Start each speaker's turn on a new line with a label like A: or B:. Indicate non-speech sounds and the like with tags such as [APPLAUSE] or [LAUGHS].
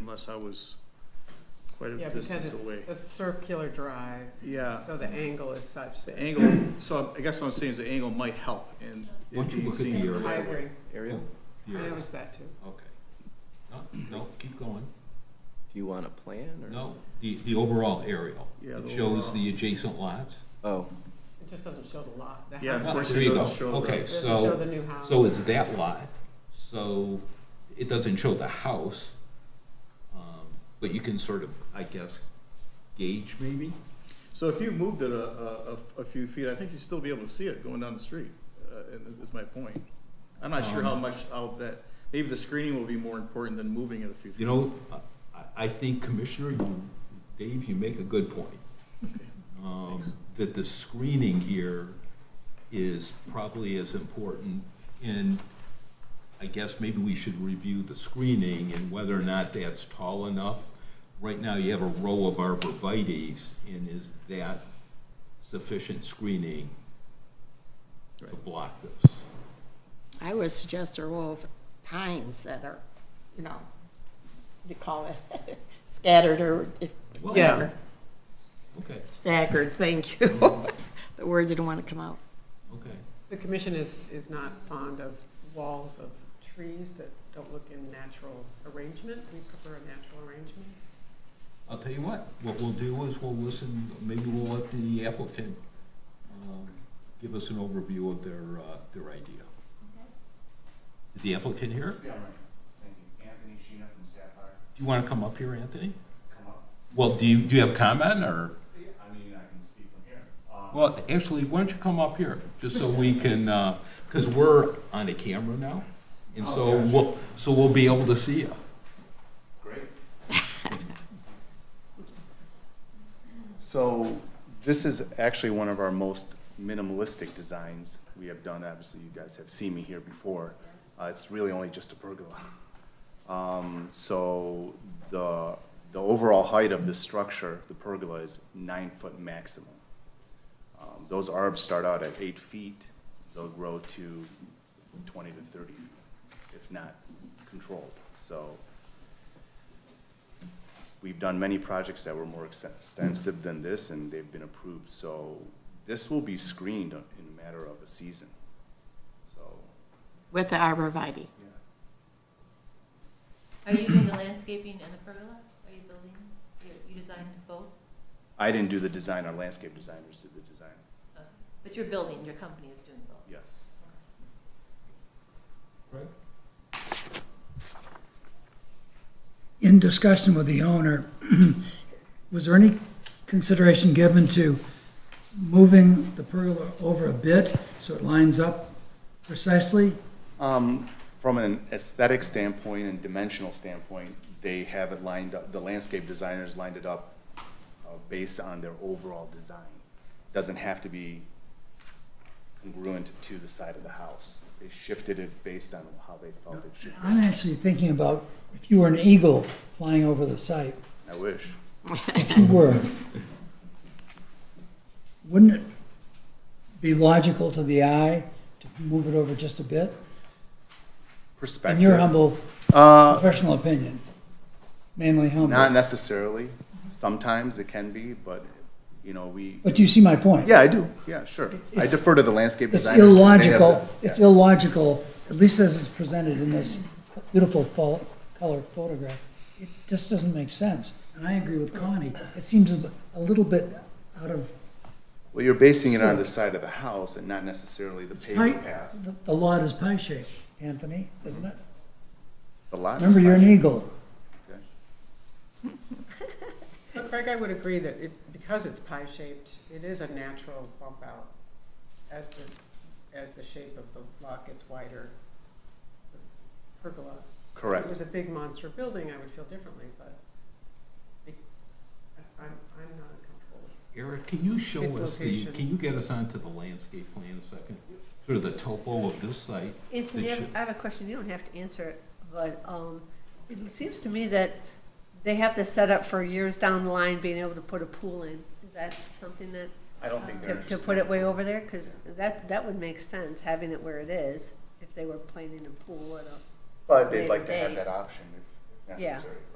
A: unless I was quite a
B: Yeah, because
A: distance away. Uh,
B: it's a circular drive,
A: Yeah,
B: so the angle is such
A: the
B: that.
A: angle, so I guess what I'm saying is the angle might help in
C: Why
A: it
C: don't you
A: being
C: look at the
A: seen.
C: area?
B: I agree,
D: Ariel,
C: Oh.
B: I
C: You're,
B: noticed that too.
C: okay.
A: [CLEARS THROAT]
C: No, no, keep going.
D: do you want a plan or?
C: No, the, the overall aerial.
A: Yeah,
C: It
A: the
C: shows
A: overall.
C: the adjacent lots. Oh,
D: Oh,
B: It just doesn't show the lot, the
A: Yeah,
B: house.
A: Of course, it
C: There you go.
A: doesn't show the-
C: Okay,
B: It doesn't show the
C: so,
B: new house.
C: so it's that lot, so it doesn't show the house. um, But you can sort of, I guess, gauge maybe?
A: So if you moved it a, a, a- a few feet, I think you'd still be able to see it going down the street, uh, and is my point. I'm not sure how
C: Um,
A: much, how that, maybe the screening will be more important than moving it a few feet.
C: You know, I, I think Commissioner, you, Dave, you make a good point. Um,
A: Thanks.
C: that the screening here is probably as important, and I guess maybe we should review the screening and whether or not that's tall enough. Right now, you have a row of arborvitae's, and is that sufficient screening to
A: Right.
C: block this?
E: I would suggest a row of pines that are, you know, what do you call it, [LAUGHS] scattered or if,
C: Well,
B: Yeah.
C: Okay,
E: staggered, thank you. [LAUGHS] The word didn't want to come out.
C: okay.
B: The commission is, is not fond of walls of trees that don't look in natural arrangement. We prefer a natural arrangement.
C: I'll tell you what, what we'll do is we'll listen, maybe we'll let the applicant, um, give us an overview of their, uh, their idea. Is the applicant here?
F: Yeah, right. Thank you. Anthony Sheena from Sapphire.
C: Do you wanna come up here, Anthony?
F: Come up.
C: Well, do you, do you have comment, or,
F: I mean, I can speak from here. Um,
C: well, actually, why don't you come up here, just so we can, uh cause we're on a camera now, and so
F: Oh, gotcha.
C: we'll, so we'll be able to see you.
F: Great. [LAUGHS] So this is actually one of our most minimalistic designs we have done. Obviously, you guys have seen me here before. Uh, it's really only just a pergola. Um, so the, the overall height of the structure, the pergola, is nine foot maximum. Um, those arbs start out at eight feet. They'll grow to twenty to thirty feet, if not controlled. So we've done many projects that were more exten- extensive than this, and they've been approved, so this will be screened in a matter of a season. So,
E: With the arborvitae.
F: yeah.
G: Are you doing the landscaping and the pergola? Are you building, you, you designed both?
F: I didn't do the design, our landscape designers did the design,
G: Uh, But you're building, your company is doing both?
F: yes.
H: in discussion with the owner, [CLEARS THROAT] was there any consideration given to moving the pergola over a bit so it lines up precisely?
F: Um, from an aesthetic standpoint and dimensional standpoint, they have it lined up, the landscape designers lined it up uh, based on their overall design. Doesn't have to be congruent to the side of the house. They shifted it based on how they felt it should be.
H: I'm actually thinking about if you were an eagle flying over the site,
F: I wish.
H: if you were, wouldn't it be logical to the eye to move it over just a bit?
F: Perspective.
H: In your humble
F: Uh,
H: professional opinion, mainly humble.
F: not necessarily. Sometimes it can be, but, you know, we,
H: But you see my point.
F: yeah, I do. Yeah, sure. I
H: It's-
F: defer to the landscape
H: It's
F: designers. 'cause they have
H: illogical,
F: the-
H: it's
F: yeah.
H: illogical, at least as it's presented in this beautiful fo- color photograph. It just doesn't make sense. And I agree with Connie. It seems a a little bit out of
F: Well, you're basing it on the side of the house and not necessarily the
H: pi.
F: paved path.
H: the- The lot is pie-shaped, Anthony, isn't it?
F: The lot is
H: Remember, you're an
F: fine.
H: eagle.
F: Okay.
B: But Craig, I would agree that it, because it's pie-shaped, it is a natural bump out. As the, as the shape of the lot gets wider, the pergola. If it
F: Correct.
B: was a big monster building, I would feel differently, but it- I- I'm, I'm not uncomfortable with
C: Eric, can you show
B: Its
C: us the,
B: location.
C: can you get us onto the landscape plan a second? Sort of the topo of this site?
I: Anthony,
C: They
I: I have-
C: should-
I: I have a question, you don't have to answer it, but um, it seems to me that they have this set up for years down the line, being able to put a pool in. Is that something that,
F: I don't think they're
I: to- to
F: interested.
I: put it way over there? Because that, that would make sense, having it where it is, if they were planning a pool at a,
F: But they'd like to have
I: They-
F: that option if- if
I: Yeah.
F: necessary.